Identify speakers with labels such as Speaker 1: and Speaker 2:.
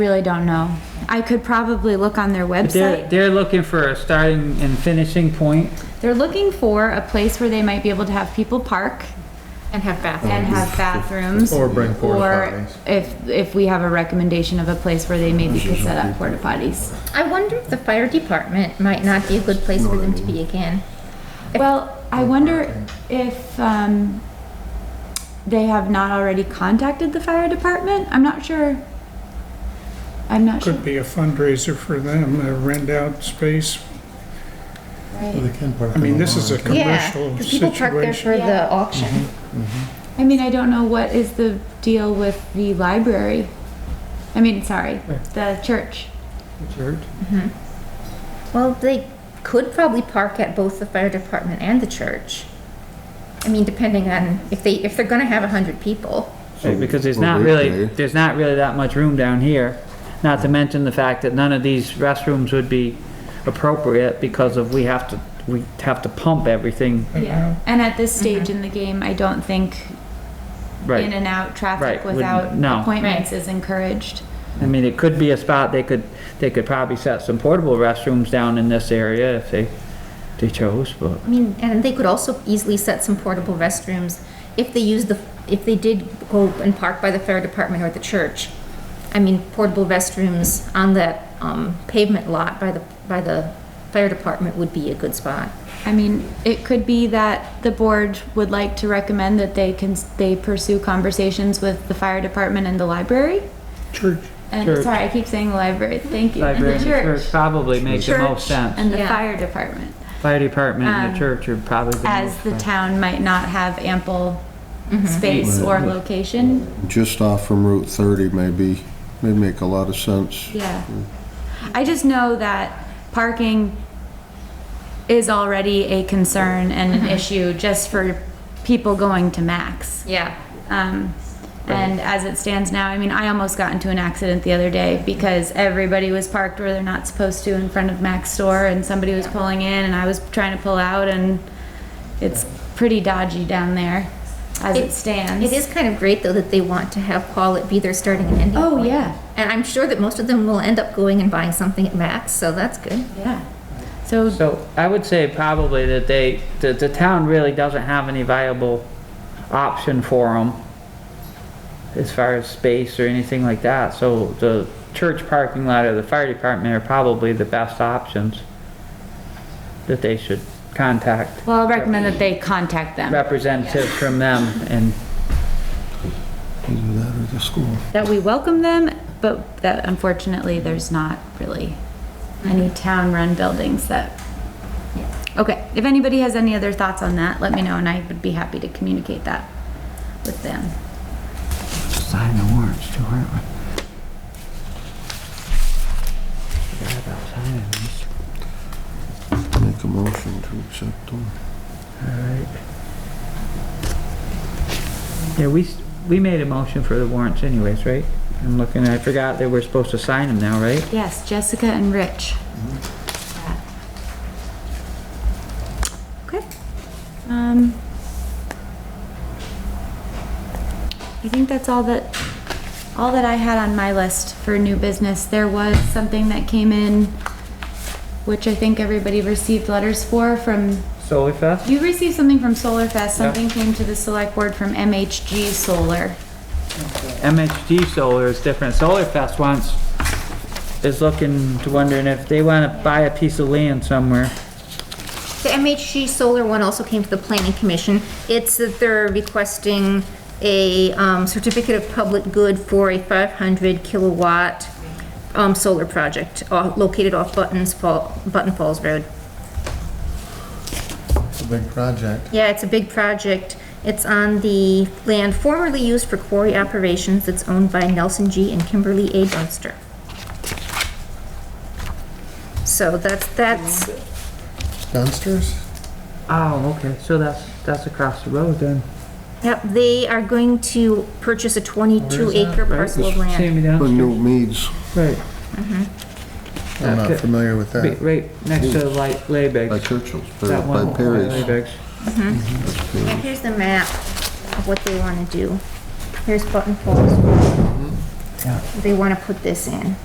Speaker 1: Really don't know. I could probably look on their
Speaker 2: They're,
Speaker 1: website.
Speaker 2: they're looking for a starting and finishing point.
Speaker 1: They're looking for a place where they might be able to have people park
Speaker 3: And have bathrooms.
Speaker 1: and have bathrooms.
Speaker 4: Oh, Or bring porta
Speaker 1: or
Speaker 4: potties.
Speaker 1: If, if we have a recommendation of a place where they maybe could set up porta potties.
Speaker 3: I wonder if the fire department might not be a good place for them to be again.
Speaker 1: Well, I wonder if, um, they have not already contacted the fire department? I'm not sure. I'm not sure.
Speaker 5: Could be a fundraiser for them, uh, rent out space.
Speaker 1: Right.
Speaker 5: I mean, this is a
Speaker 3: Yeah,
Speaker 5: commercial
Speaker 3: 'cause people park there
Speaker 5: situation.
Speaker 1: Yeah.
Speaker 3: for the auction.
Speaker 1: I mean, I don't know what is the deal with the library. I mean, sorry, the church.
Speaker 3: Well, they could probably park at both the fire department and the church. I mean, depending on if they, if they're gonna have a hundred people.
Speaker 2: Right, because there's
Speaker 6: Well,
Speaker 2: not
Speaker 6: we-
Speaker 2: really,
Speaker 6: yeah.
Speaker 2: there's not really that much room down here. Not to mention the fact that none of these restrooms would be appropriate because of, we have to, we have to pump everything,
Speaker 1: Yeah. And at this stage in the game, I don't think in
Speaker 2: right?
Speaker 1: and out traffic
Speaker 2: Right, wouldn't-
Speaker 1: without
Speaker 2: no.
Speaker 1: appointments is encouraged.
Speaker 2: I mean, it could be a spot, they could, they could probably set some portable restrooms down in this area if they, they chose, but.
Speaker 3: I mean, and they could also easily set some portable restrooms if they use the, if they did go and park by the fire department or the church. I mean, portable restrooms on that, um, pavement lot by the, by the fire department would be a good spot.
Speaker 1: I mean, it could be that the board would like to recommend that they can, they pursue conversations with the fire department and the library.
Speaker 5: Church.
Speaker 1: And,
Speaker 2: Church.
Speaker 1: sorry, I keep saying the library, thank you. And
Speaker 2: Library
Speaker 1: the
Speaker 2: and church
Speaker 1: church.
Speaker 2: probably makes the most
Speaker 1: Church
Speaker 2: sense.
Speaker 1: And the
Speaker 3: Yeah.
Speaker 1: fire department,
Speaker 2: Fire department and
Speaker 1: Um,
Speaker 2: the church are probably the
Speaker 1: as
Speaker 2: most
Speaker 1: the
Speaker 2: sense.
Speaker 1: town might not have ample space
Speaker 2: Mm-hmm.
Speaker 1: or location.
Speaker 6: Just off from Route 30 maybe, may make a lot of sense.
Speaker 1: Yeah. I just know that parking is already a concern and an issue just for people going to Max.
Speaker 3: Yeah.
Speaker 1: Um, and as it stands now, I mean, I almost got into an accident the other day because everybody was parked where they're not supposed to in front of Mac's store and somebody was pulling in and I was trying to pull out and it's pretty dodgy down there as it
Speaker 3: It-
Speaker 1: stands.
Speaker 3: It is kind of great though that they want to have Paul it be their starting and ending.
Speaker 1: Oh,
Speaker 3: point.
Speaker 1: yeah.
Speaker 3: And I'm sure that most of them will end up going and buying something at Max, so that's good.
Speaker 1: Yeah. So
Speaker 2: So I would say probably that they, that the town really doesn't have any viable option for them as far as space or anything like that. So the church parking lot or the fire department are probably the best options that they should contact
Speaker 1: Well, I'll recommend that they contact them.
Speaker 2: representatives from them and
Speaker 6: Either that or the school.
Speaker 1: That we welcome them, but that unfortunately, there's not really any town-run buildings that. Okay, if anybody has any other thoughts on that, let me know and I would be happy to communicate that with them.
Speaker 2: sign the warrants too, aren't we?
Speaker 6: Make a motion to accept them.
Speaker 2: Alright. Yeah, we, s- we made a motion for the warrants anyways, right? I'm looking, I forgot that we're supposed to sign them now, right?
Speaker 1: Yes, Jessica and Rich. Okay. Um, I think that's all that, all that I had on my list for new business. There was something that came in, which I think everybody received letters for from,
Speaker 2: Solar Fest?
Speaker 1: you received something from Solar Fest,
Speaker 2: Yeah.
Speaker 1: something came to the select board from MHG Solar.
Speaker 2: MHD Solar is different. Solar Fest wants, is looking to wondering if they wanna buy a piece of land somewhere.
Speaker 3: The MHG Solar one also came to the Planning Commission. It's that they're requesting a um, certificate of public good for a 500 kilowatt um, solar project uh, located off Buttons Fall, Button Falls Road.
Speaker 4: It's a big project.
Speaker 3: Yeah, it's a big project. It's on the land formerly used for quarry operations that's owned by Nelson G. and Kimberly A. Dunster. So that's, that's,
Speaker 4: Dunsters?
Speaker 2: Oh, okay, so that's, that's across the road then.
Speaker 3: yep, they are going to purchase a 22 acre parcel of land.
Speaker 2: Sammy
Speaker 6: But
Speaker 2: down,
Speaker 6: New Meads,
Speaker 2: right,
Speaker 4: I'm not
Speaker 2: Okay.
Speaker 4: familiar with
Speaker 2: be-
Speaker 4: that.
Speaker 2: right next to the light
Speaker 6: by
Speaker 2: Laybags.
Speaker 6: Churchill's,
Speaker 2: That
Speaker 6: by
Speaker 2: one,
Speaker 6: by Perry's.
Speaker 2: Laybags.
Speaker 3: And here's the map of what they want to do. Here's Button Falls.
Speaker 2: Yeah.
Speaker 3: they want to put this in.